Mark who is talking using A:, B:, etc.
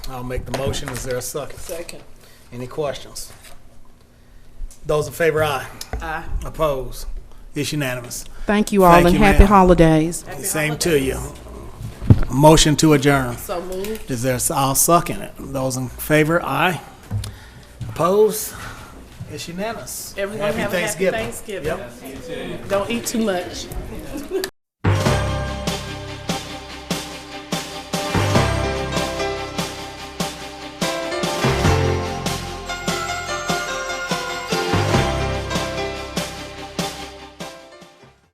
A: I'll make the motion. Is there a second?
B: Second.
A: Any questions? Those in favor, aye.
B: Aye.
A: Opposed? It's unanimous.
C: Thank you all
A: Thank
C: and
A: you,
C: happy
A: ma'am.
C: holidays.
A: Same to you. Motion to adjourn.
B: So moved.
A: Is there, I'll suck in it. Those in favor, aye. Opposed? It's unanimous.
B: Everyone have a happy Thanksgiving.
A: Yep.
B: Don't eat too much.